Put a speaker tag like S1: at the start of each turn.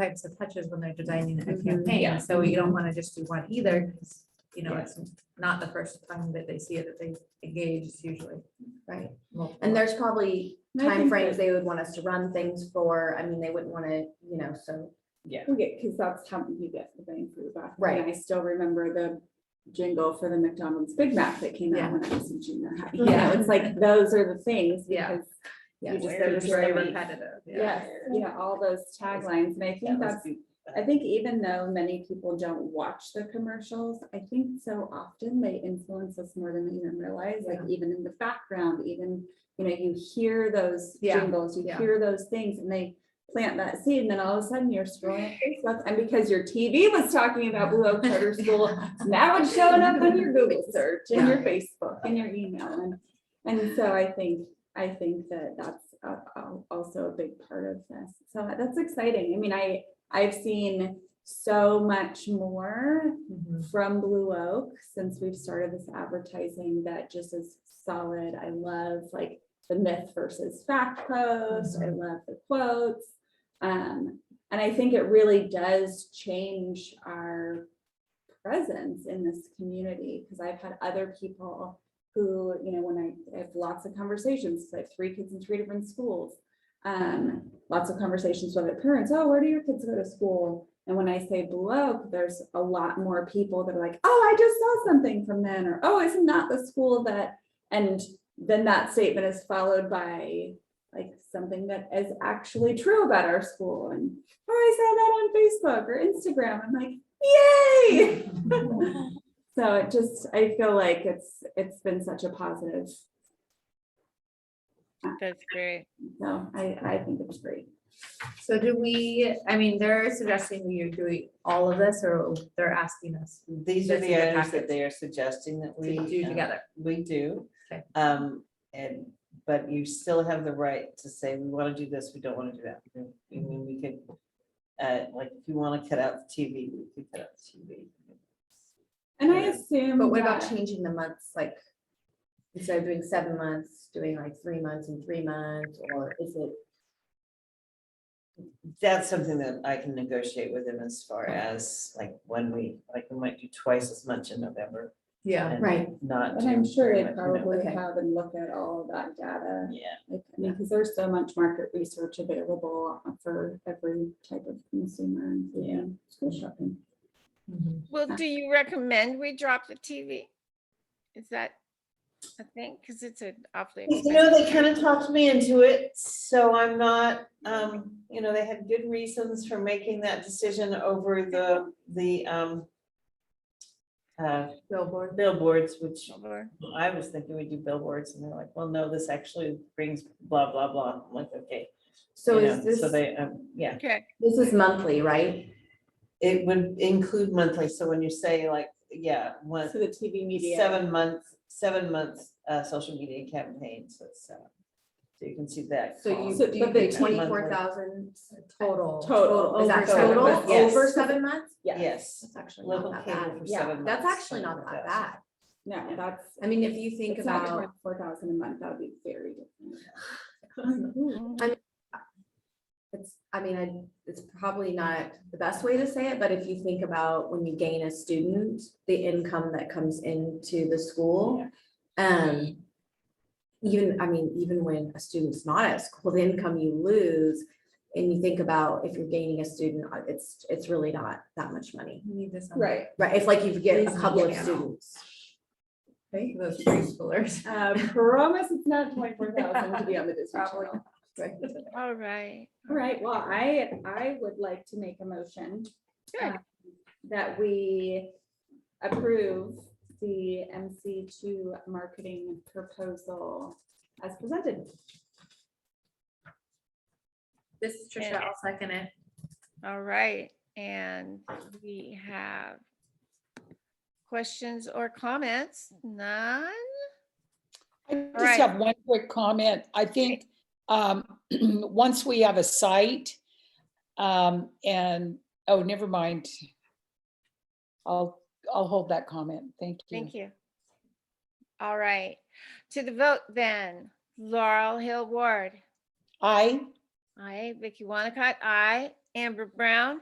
S1: types of touches when they're designing a
S2: Mhm.
S1: campaign,
S3: Yeah.
S1: so you don't wanna just do one either, 'cause, you know,
S3: Yeah.
S1: it's not the first time that they see it, that they engage, it's usually.
S2: Right,
S1: multiple.
S2: and there's probably
S4: And I think
S2: timeframes they would want us to run things for, I mean, they wouldn't want to, you know, so,
S3: Yeah.
S4: We get, because that's how you get the bang for your buck.
S2: Right.
S4: And I still remember the jingle for the McDonald's Big Mac that came
S1: Yeah.
S4: out when I was in junior high. You know, it's like, those are the things
S1: Yeah.
S4: because,
S2: yeah.
S4: You just-
S3: Where
S4: there's
S3: is
S4: so
S3: my-
S4: many-
S1: Repetitive,
S4: yes, yeah, all those taglines. And I
S3: That
S4: think
S3: was
S4: that's,
S3: the-
S4: I think even though many people don't watch the commercials, I think so often they influence us more than we even realize, like
S1: Yeah.
S4: even in the background, even, you know, you hear those
S1: Yeah,
S4: jingles, you
S1: yeah.
S4: hear those things and they plant that seed and then all of a sudden you're scrolling Facebook and because your TV was talking about Blue Oak Charter School, now it's showing up on your Google search and your Facebook and your email and, and so I think, I think that that's uh, al- also a big part of this. So that's exciting. I mean, I, I've seen so much more
S1: Mhm.
S4: from Blue Oak since we've started this advertising that just is solid. I love like the myth versus fact post. I love the quotes. Um, and I think it really does change our presence in this community because I've had other people who, you know, when I, I have lots of conversations, 'cause I have three kids in three different schools. Um, lots of conversations with their parents. Oh, where do your kids go to school? And when I say Blue Oak, there's a lot more people that are like, oh, I just saw something from then, or oh, isn't that the school that? And then that statement is followed by like something that is actually true about our school. And oh, I saw that on Facebook or Instagram. I'm like, yay! so it just, I feel like it's it's been such a positive.
S5: That's great.
S4: So I I think it's great.
S1: So do we, I mean, they're suggesting we are doing all of this, or they're asking us
S3: These are
S1: That's in
S3: the
S1: the
S3: items
S1: packet.
S3: that they are suggesting that
S1: to
S3: we.
S1: do
S3: um,
S1: together?
S3: We do.
S1: Okay.
S3: Um, and, but you still have the right to say, we want to do this, we don't want to do that. I mean, we could, uh, like, if you want to cut out the TV, we could cut out the TV.
S4: And I
S3: Yeah.
S4: assume
S2: But what about
S4: that-
S2: changing the months, like, instead of doing seven months, doing like three months and three months, or is it?
S3: That's something that I can negotiate with them as far as like when we, like, we might do twice as much in November.
S1: Yeah,
S3: and
S2: Right.
S3: Not.
S4: And I'm
S3: do
S4: sure
S3: pretty
S4: they
S3: much, you know,
S4: probably
S2: okay.
S4: have and look at all of that data.
S3: Yeah.
S4: Like, I mean, because there's so much market research available for every type of consumer, including school shopping.
S1: Mhm.
S5: Well, do you recommend we drop the TV? Is that a thing? Because it's an awfully.
S3: You know,
S5: expensive-
S3: they kind of talked me into it, so I'm not, um, you know, they had good reasons for making that decision over the, the, um, uh,
S1: billboard.
S3: billboards, which
S5: Or-
S3: I was thinking we do billboards, and they're like, well, no, this actually brings blah, blah, blah. I'm like, okay.
S2: So
S3: you
S2: is
S3: know,
S2: this,
S3: So they, um, yeah,
S5: Okay,
S2: this is monthly, right?
S3: it would include monthly, so when you say like, yeah, one,
S4: So the TV media.
S3: seven months, seven months, uh, social media campaigns, that's, uh, so you can see that.
S2: So
S3: column.
S2: you,
S4: So
S2: do
S4: do
S2: you
S4: you
S2: think
S3: think monthly?
S2: twenty-four thousand?
S1: Total.
S4: Total,
S2: Is that
S4: over seven
S2: total
S3: months,
S2: over
S3: yes.
S2: seven months?
S3: Yes.
S2: That's actually
S3: Local
S2: not that
S3: cable
S2: bad.
S3: for
S4: Yeah,
S3: seven
S2: That's
S3: months,
S2: actually not that
S3: 24,000.
S2: bad.
S4: No, that's.
S2: I mean, if you think about.
S4: Four thousand a month, that would be very different.
S2: It's, I mean, I, it's probably not the best way to say it, but if you think about when you gain a student, the income that comes into the school. Um. Even, I mean, even when a student's not at school, the income you lose. And you think about if you're gaining a student, uh, it's, it's really not that much money,
S1: We need this on-
S4: Right.
S2: right? It's like you get a couple of
S1: Yeah.
S2: students.
S1: Okay, those preschoolers.
S4: Uh, Promise it's not twenty-four thousand to be on the Disney Channel.
S5: All right.
S4: All right, well, I, I would like to make a motion um,
S5: Good.
S4: that we approve the MC two marketing proposal as presented.
S1: This is Trisha, I'll second it.
S5: All right. And we have questions or comments? None?
S6: I just
S5: Right.
S6: have one quick comment. I think, um, once we have a site, um, and, oh, never mind. I'll, I'll hold that comment. Thank you.
S5: Thank you. All right. To the vote then, Laurel Hill Ward.
S6: I,
S5: Aye, Vicky Wanacott, aye. Amber Brown.